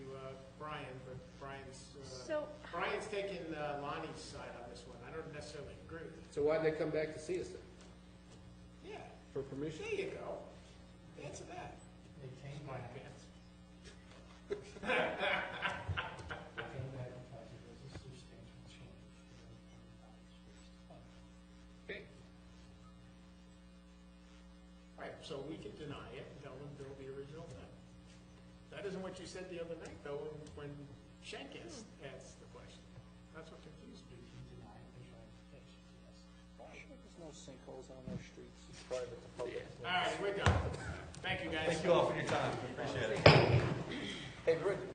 uh, Brian's, uh, So- Brian's taking uh, Lonnie's side on this one. I don't necessarily agree with So why'd they come back to see us then? it. Yeah, For permission? there you go. Answer that. They came My back, pants. they came back and thought there was a substantial change. Okay. All right, so we could deny it and tell them build the original thing. That isn't what you said the other night, though, when- when Shank asked, asked the question. That's what confused me. You deny visual application, yes. There's no sinkholes on our streets. Private to public. All right, we're done. Thank you, guys. Thank you all for your time, appreciate it. Hey, Rick,